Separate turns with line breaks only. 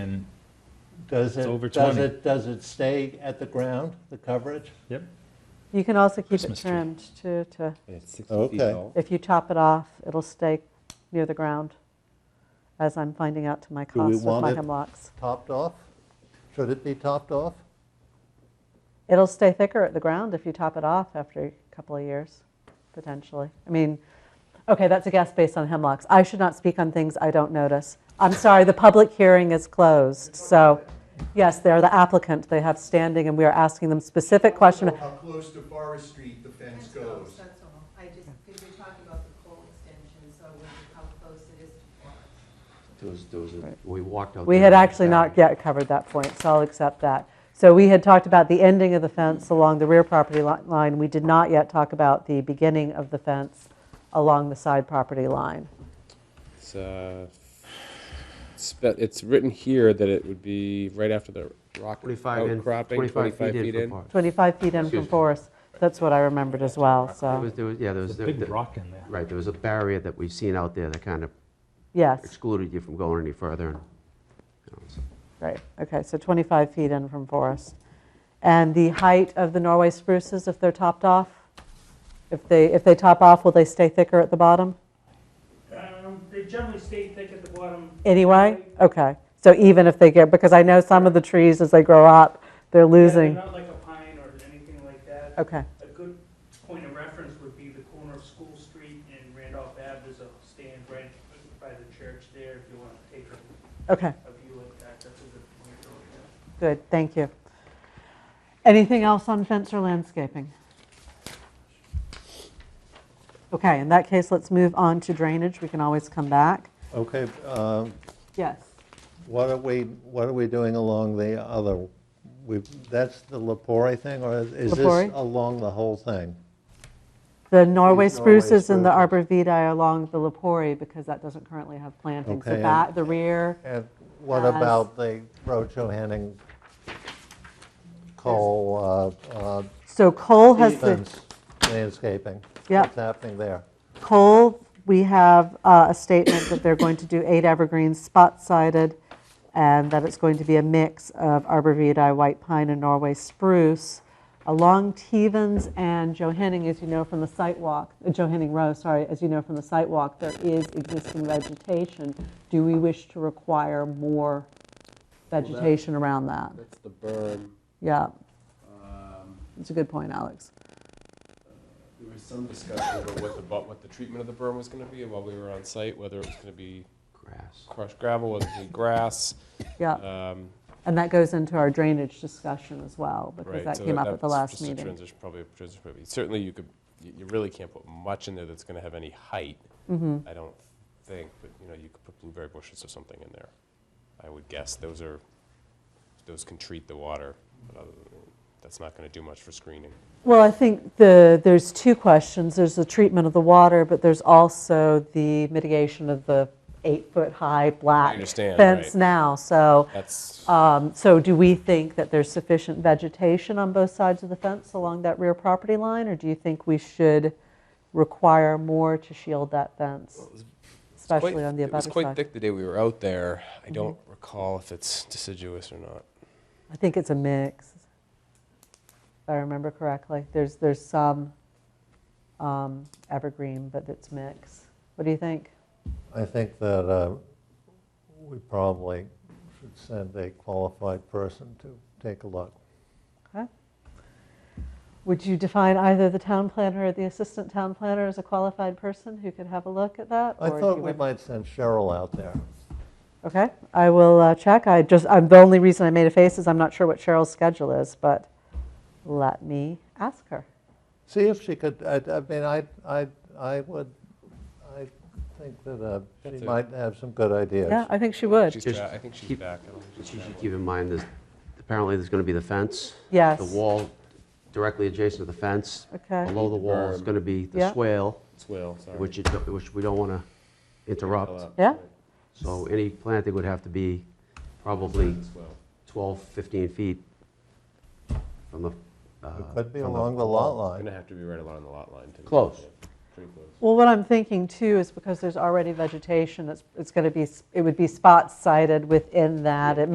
And,
Does
It's over
it, does
20.
it, does it stay at the ground, the coverage?
yep,
You can also keep it
Christmas tree.
trimmed too, to,
And It's 60
Okay.
feet tall.
if you chop it off, it'll stay near the ground, as I'm finding out to my
we
cost with
want
my
it-
hemlocks.
Topped off? Should it be topped off?
It'll stay thicker at the ground if you top it off after a couple of years, potentially. I mean, okay, that's a guess based on hemlocks. I should not speak on things I don't notice. I'm sorry, the public hearing is closed, so, yes, they're the applicant, they have standing, and we are asking them specific question.
How close to Forest Street the fence goes.
That's all. I just, because you're talking about the pole extension, so I wondered how close it is to Forest.
Those, those, are- we walked out.
We
there
had
and
actually not
back.
yet covered that point, so I'll accept that. So we had talked about the ending of the fence along the rear property li- line. We did not yet talk about the beginning of the fence along the side property line.
It's, uh, spe- it's written here that it would be right after the rock
25 in,
outcropping,
25 Oh, feet in for park.
25 feet in from
Excuse me.
Forest, that's what I remembered as well,
There
so,
was, there was, yeah, there was.
there's a big
there-
rock in there.
Right, there was a barrier that we've seen out there that kind of
yes,
excluded you from going any further. and, you know, so-
right, okay, so 25 feet in from Forest. And the height of the Norway spruces, if they're topped off? If they, if they top off, will they stay thicker at the bottom?
Um, They generally stay thick at the bottom.
Anyway, okay. So even if they get, because I know some of the trees as they grow up, they're
Yeah, they're
losing. Uh,
Not like a pine or anything like that.
Okay,
A good point of reference would be the corner of School Street and Randolph Ave. There's a stand right by the church there if you want to take a
okay,
a view like that. That's a good point. to look at.
good, thank you. Anything else on fence or landscaping? Okay, in that case, let's move on to drainage. We can always come back.
Okay, um,
Yes.
what are we, what are we doing along the other, we, that's the Lepori thing, or is this
Lepori?
along the whole thing?
The Norway
These Norway
spruces and the
spruces.
arbor vitae are along the Lepori because that doesn't currently have plantings. The
Okay, and-
back, the rear,
And what
As-
about the road Henning coal uh, uh,
so Cole has the.
easements landscaping?
Yep.
What's happening there?
Cole, we have uh, a statement that they're going to do eight evergreens spot-sided, and that it's going to be a mix of arborvitae, white pine, and Norway spruce. Along Tevens and Johanning, as you know from the site walk, uh, Johanning Row, sorry, as you know from the site walk, there is existing vegetation. Do we wish to require more vegetation around that?
That's the berm.
Yeah,
Um,
that's a good point, Alex.
There was some discussion about what the, bu- what the treatment of the berm was gonna be while we were on site, whether it was gonna be
Grass.
crushed gravel, whether it was gonna be grass.
Yeah,
um,
and that goes into our drainage discussion as well, because
Right.
that
so
came up at the
that's
last
just a
meeting.
transition- Probably a transition, probably. Certainly you could, you you really can't put much in there that's gonna have any height.
Mm-hmm.
I don't think, but, you know, you could put blueberry bushes or something in there. I would guess. Those are, those can treat the water, but other than, that's not gonna do much for screening.
Well, I think the, there's two questions. There's the treatment of the water, but there's also the mitigation of the eight-foot-high black
understand,
fence
right.
now. So,
That's,
um, so do we think that there's sufficient vegetation on both sides of the fence along that rear property line? Or do you think we should require more to shield that fence, especially
quite-
on the
It was
abutter
quite
side?
thick the day we were out there. I
Mm-hmm.
don't recall if it's deciduous or not.
I think it's a mix, if I remember correctly. There's, there's some um, evergreen, but it's mixed. What do you think?
I think that uh, we probably should send a qualified person to take a look.
Okay. Would you define either the town planner or the assistant town planner as a qualified person who could have a look at that?
I
or do
thought
you
we
want-
might send Cheryl out there.
Okay, I will uh, check. I just, I'm, the only reason I made a face is I'm not sure what Cheryl's schedule is, but let me ask her.
See if she could, I, I mean, I, I, I would, I think that uh,
That's
she
a-
might have some good ideas.
Yeah, I think she would.
She's
Just
back. I think she's
keep-
back. I don't think she's
But you should
traveling.
keep in mind, there's, apparently there's going to be the fence.
Yes.
The wall directly adjacent to the fence.
Okay.
Below the wall is
Berm.
going to be the
Yeah.
swale,
It's Will, sorry.
which, it- which we don't want to interrupt.
Yeah?
So any planting would have to be probably
It's Will.
12, 15 feet from the. uh,
It could be
from the-
along the lot
Going to
line.
have to be right along the lot line. too.
Close.
Yeah, Pretty close.
Well, what I'm thinking too is because there's already vegetation, it's, it's going to be, s- it would be spot sighted within that. It